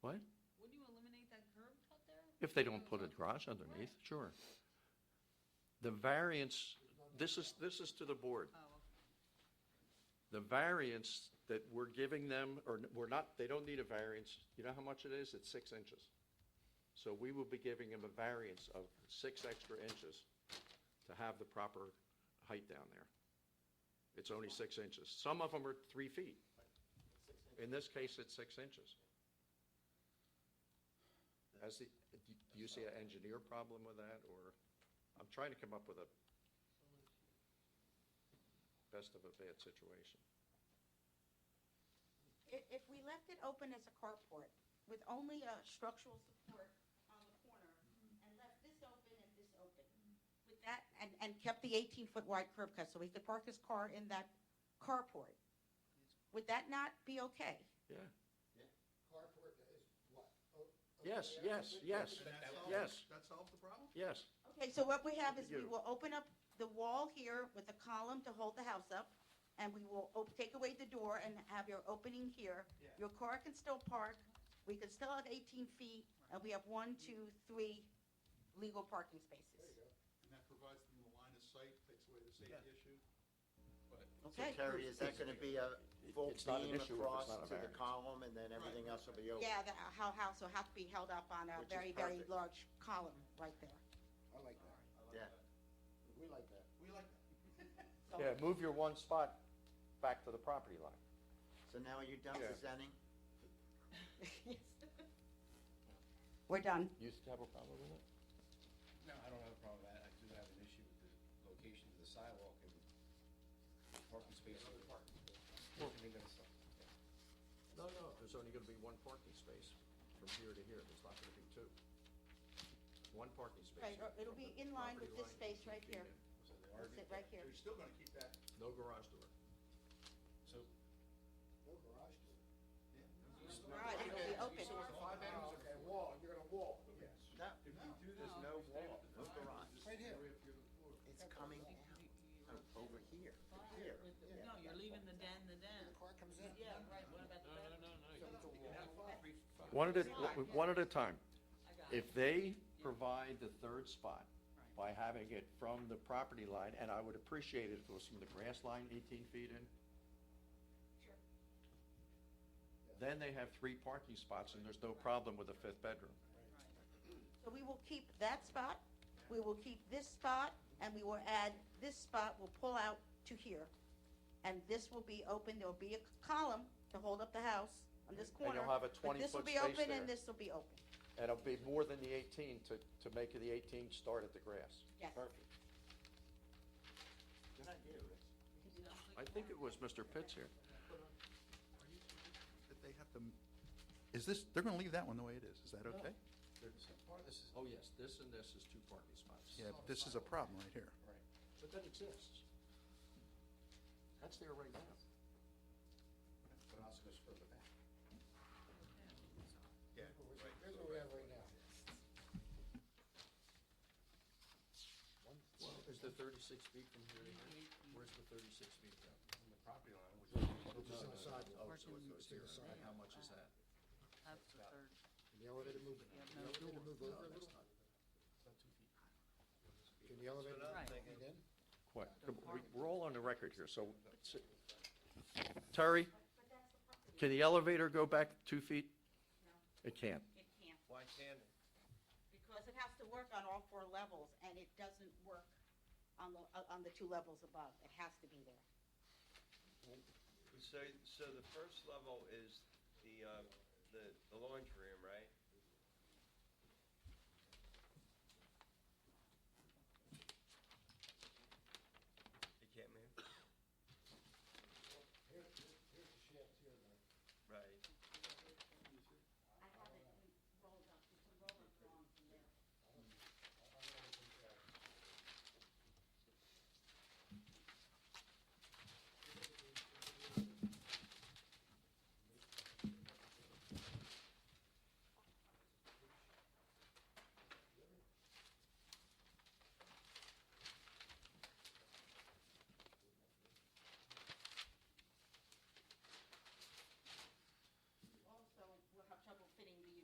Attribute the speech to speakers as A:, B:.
A: If they don't put a garage underneath, sure. The variance, this is, this is to the board.
B: Oh,
A: The variance that we're giving them, or n- we're not, they don't need a variance, you know how much it is? It's six inches. So we will be giving them a variance of six extra inches to have the proper height down there. It's only six inches. Some of them are three feet. In this case, it's six inches. As the, do you see an engineer problem with that, or, I'm trying to come up with a best of a bad situation.
C: If, if we left it open as a carport with only a structural support on the corner and left this open and this open, with that, and, and kept the eighteen-foot wide curb cut so he could park his car in that carport, would that not be okay?
A: Yeah.
D: Carport is what? O- open
A: Yes,
D: air?
A: yes, yes,
D: That solves-
A: yes.
D: That solves the problem?
A: yes.
C: Okay, so what we have is we
A: You.
C: will open up the wall here with a column to hold the house up, and we will op- take away the door and have your opening here.
D: Yeah.
C: Your car can still park, we can still have eighteen feet, and we have one, two, three legal parking
D: There you
C: spaces.
D: go.
E: And that provides them the line of sight, takes away the safety issue.
F: So
C: Okay,
F: Terry, is that gonna be a full
A: It's not an
F: beam
A: issue if it's
F: across
A: not a
F: to the
A: variance.
F: column and then everything else will be open?
C: yeah, the ho- house will have to be held up on a
F: Which is
C: very, very
F: perfect.
C: large column right there.
D: I like that.
F: Yeah.
D: We like that.
E: We like that.
C: So-
A: Yeah, move your one spot back to the property line.
F: So now are you done
A: Yeah.
F: presenting?
C: Yes. We're done.
A: You used to have a problem with it?
G: No, I don't have a problem with that. I do have an issue with the location of the sidewalk and parking spaces. I mean, that's-
A: No, no, there's only gonna be one parking space from here to here, there's not gonna be two. One parking space.
C: Right, or it'll
A: from
C: be
A: the
C: in line with
A: property
C: this
A: line
C: space
A: to
C: right
A: the
C: here.
G: So they
C: It'll
G: are,
C: Sit right here.
E: So you're still gonna keep that,
A: end. No garage door.
G: so,
D: No garage door.
C: Right, it'll be open.
D: Oh, okay, wall, you're gonna wall, yes.
F: No,
E: if you do
F: there's no wall, no garage.
D: Right here.
F: It's coming out, o- over here, from here. Yeah.
B: No, you're leaving the den, the den.
D: The car comes in.
B: Yeah, right, what about the bedroom?
A: One at a, one at a time.
B: I got it.
A: If they provide the third spot by having it from the property line, and I would appreciate it if it was from the grass line eighteen feet in. Then they have three parking spots and there's no problem with a fifth bedroom.
C: So we will keep that spot, we will keep this spot, and we will add, this spot will pull out to here. And this will be open, there'll be a column to hold up the house on this
A: And
C: corner.
A: you'll have a
C: But this will
A: 20-foot
C: be
A: space
C: open
A: there.
C: and this will be open,
A: And it'll be more than the eighteen to, to make the eighteen start at the grass.
C: yes.
F: Perfect. Good idea, Rich.
A: I think it was Mr. Pitts here.
E: That they have to, m- is this, they're gonna leave that one the way it is, is that okay?
G: so part of this is,
A: Oh, yes, this and this is two parking spots.
E: Yeah, but this is a problem right here.
A: But that exists. That's there right now.
G: but it also goes further back.
E: Yeah.
D: Here's what we have right now.
A: Well, is the thirty-six feet from here to here? Where's the thirty-six feet from?
G: From the property line, which
D: Which is in the
A: Oh,
D: sidewalk.
A: so it goes here, and how much is that?
B: Up to third.
D: Can the elevator move,
B: You have
D: can
B: no
D: the elevator
B: door.
D: move over a little? Can the elevator
B: Right.
D: move in?
A: What, we're all on the record here, so, Terry, can the elevator go back two feet? It can't.
C: It can't,
G: Why can't it?
C: because it has to work on all four levels, and it doesn't work on the, on the two levels above, it has to be there.
H: So, so the first level is the, uh, the